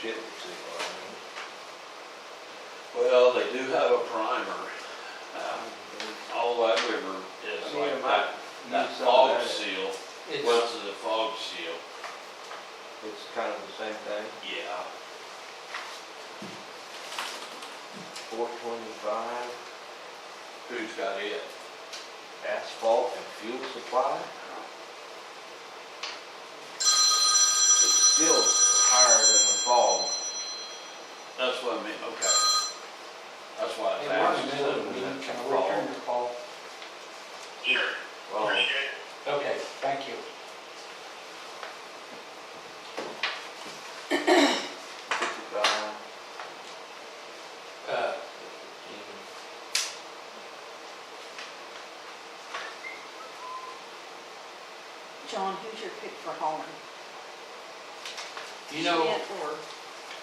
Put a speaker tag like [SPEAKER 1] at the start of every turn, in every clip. [SPEAKER 1] chip, see what I mean?
[SPEAKER 2] Well, they do have a primer, um, all that river is
[SPEAKER 3] Me
[SPEAKER 2] like
[SPEAKER 3] and
[SPEAKER 2] that,
[SPEAKER 3] Mike
[SPEAKER 2] that
[SPEAKER 3] used some of
[SPEAKER 2] fog
[SPEAKER 3] that.
[SPEAKER 2] seal,
[SPEAKER 3] It's,
[SPEAKER 2] what's the fog seal?
[SPEAKER 3] it's kind of the same thing,
[SPEAKER 2] Yeah.
[SPEAKER 3] four twenty-five
[SPEAKER 2] Who's got it?
[SPEAKER 3] asphalt and fuel supply. It's still higher than the fog.
[SPEAKER 2] That's what I mean, okay. That's why I
[SPEAKER 4] Hey,
[SPEAKER 2] was
[SPEAKER 4] we're in the
[SPEAKER 2] asking.
[SPEAKER 4] middle of a meeting, can I return your call?
[SPEAKER 3] Well,
[SPEAKER 4] Okay, thank you.
[SPEAKER 3] fifty-five,
[SPEAKER 4] Uh,
[SPEAKER 3] fifteen.
[SPEAKER 5] John, who's your pick for hauling?
[SPEAKER 4] You know,
[SPEAKER 5] Schmidt or,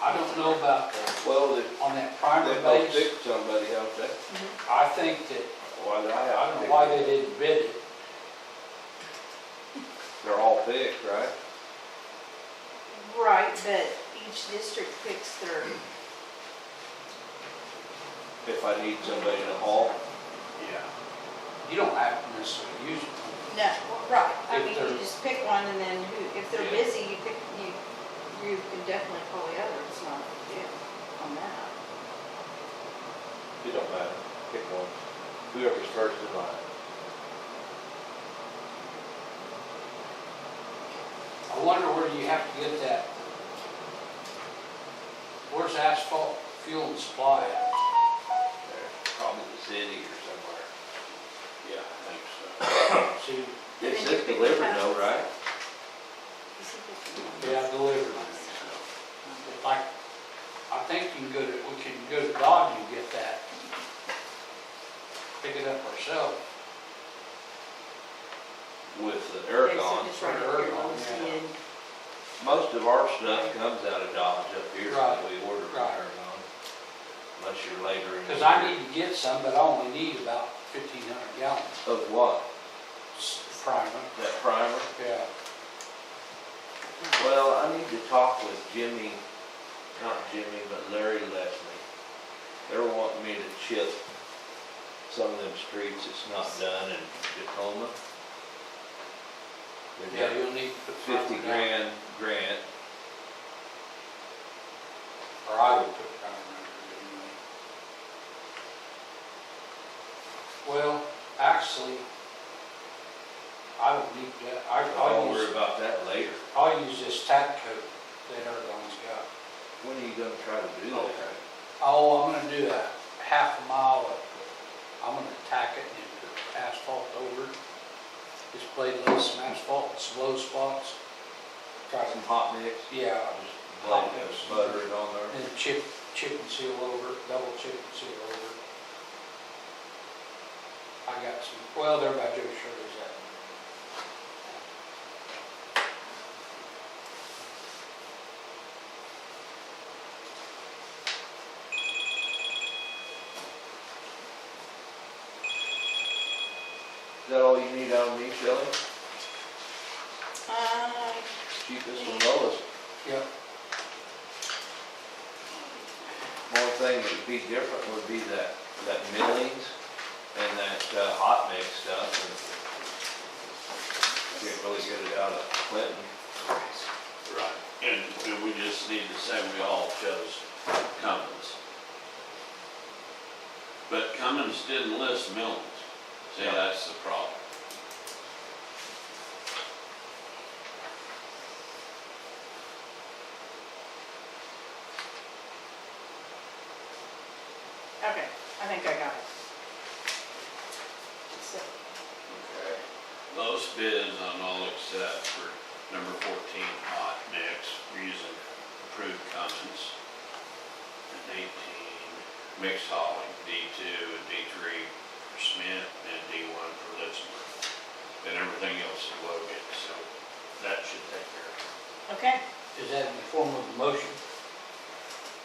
[SPEAKER 4] I don't know about, the-
[SPEAKER 3] Well, if
[SPEAKER 4] on that
[SPEAKER 3] they
[SPEAKER 4] primer
[SPEAKER 3] go pick
[SPEAKER 4] base,
[SPEAKER 3] somebody out there,
[SPEAKER 4] I think that,
[SPEAKER 3] why do I
[SPEAKER 4] I
[SPEAKER 3] have to
[SPEAKER 4] don't
[SPEAKER 3] pick?
[SPEAKER 4] know why they didn't bid it.
[SPEAKER 3] They're all picked, right?
[SPEAKER 5] right, but each district picks their,
[SPEAKER 3] If I need somebody to haul,
[SPEAKER 2] Yeah,
[SPEAKER 4] You don't have to necessarily use it.
[SPEAKER 5] no, right, I
[SPEAKER 4] If
[SPEAKER 5] mean,
[SPEAKER 4] they're-
[SPEAKER 5] you just pick one and then who, if they're
[SPEAKER 2] Yeah.
[SPEAKER 5] busy, you pick, you, you can definitely call the other, it's not a big deal on that.
[SPEAKER 3] it don't matter, pick one, whoever's first in line.
[SPEAKER 4] I wonder where you have to get that. Where's asphalt fuel and supply at?
[SPEAKER 3] There, Probably the city or somewhere.
[SPEAKER 2] yeah, I think so.
[SPEAKER 4] See,
[SPEAKER 3] It says delivered though, right?
[SPEAKER 5] Is he picking one?
[SPEAKER 4] yeah, delivered.
[SPEAKER 2] I think so.
[SPEAKER 4] Like, I think you can go to, we can go to Dodge and get that. Pick it up ourselves.
[SPEAKER 3] With the
[SPEAKER 5] Okay, so
[SPEAKER 3] ergon.
[SPEAKER 5] just right up here on the
[SPEAKER 4] Ergon, yeah.
[SPEAKER 5] end.
[SPEAKER 3] Most of our stuff comes out of Dodge up here, so
[SPEAKER 4] Right,
[SPEAKER 3] we order from
[SPEAKER 4] right.
[SPEAKER 3] ergon. Unless you're later in. the
[SPEAKER 4] Because I
[SPEAKER 3] year.
[SPEAKER 4] need to get some, but I only need about fifteen hundred gallons
[SPEAKER 3] Of what?
[SPEAKER 4] primer.
[SPEAKER 3] That primer?
[SPEAKER 4] Yeah.
[SPEAKER 3] Well, I need to talk with Jimmy, not Jimmy, but Larry Leslie. They're wanting me to chip some of them streets that's not done in Tacoma. They
[SPEAKER 4] Yeah,
[SPEAKER 3] got
[SPEAKER 4] you'll need to put
[SPEAKER 3] fifty
[SPEAKER 4] primer down,
[SPEAKER 3] grand grant.
[SPEAKER 4] Or I would put primer under it anyway. Well, actually, I don't need that. I,
[SPEAKER 3] I'll
[SPEAKER 4] I'll
[SPEAKER 3] worry
[SPEAKER 4] use,
[SPEAKER 3] about that later.
[SPEAKER 4] I'll use this tack coat that Erdogan's got.
[SPEAKER 3] When are you gonna try to do that?
[SPEAKER 2] Okay.
[SPEAKER 4] Oh, I'm gonna do a half a mile of, I'm gonna tack it and put asphalt over. it. Just play a little some asphalt, in some low spots. Try
[SPEAKER 3] Got
[SPEAKER 4] to
[SPEAKER 3] some hot mix?
[SPEAKER 4] Yeah,
[SPEAKER 3] Just blend it, butter it on there.
[SPEAKER 4] and then chip, chip and seal over, it, double chip and seal over. it. I got some, well, they're about Joe Shirley's that.
[SPEAKER 3] Is that all you need out of me, Shelley?
[SPEAKER 5] Uh,
[SPEAKER 3] Cheapest and lowest.
[SPEAKER 4] Yep,
[SPEAKER 3] One thing that would be different would be that, that millings and that uh, hot mix stuff. and Get really good out of Clinton.
[SPEAKER 2] Right, and, and we just need to say we all chose Cummins. But Cummins didn't list Millens. See,
[SPEAKER 3] Yeah.
[SPEAKER 2] that's the problem.
[SPEAKER 5] okay, I think I got it. So,
[SPEAKER 2] Okay. Those bids on all except for number fourteen hot mix using approved Cummins. And eighteen mixed hauling, D two and D three for Smith and D one for Litzmer. And everything else is Logan, so that should take care of
[SPEAKER 5] Okay,
[SPEAKER 4] is that in the form of a motion?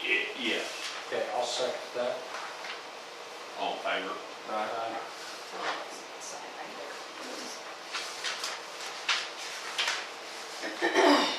[SPEAKER 2] it. Ye- Yes,
[SPEAKER 4] Okay, I'll second that.
[SPEAKER 2] all in favor?
[SPEAKER 3] Right.
[SPEAKER 4] Uh,
[SPEAKER 5] so let's sign right there.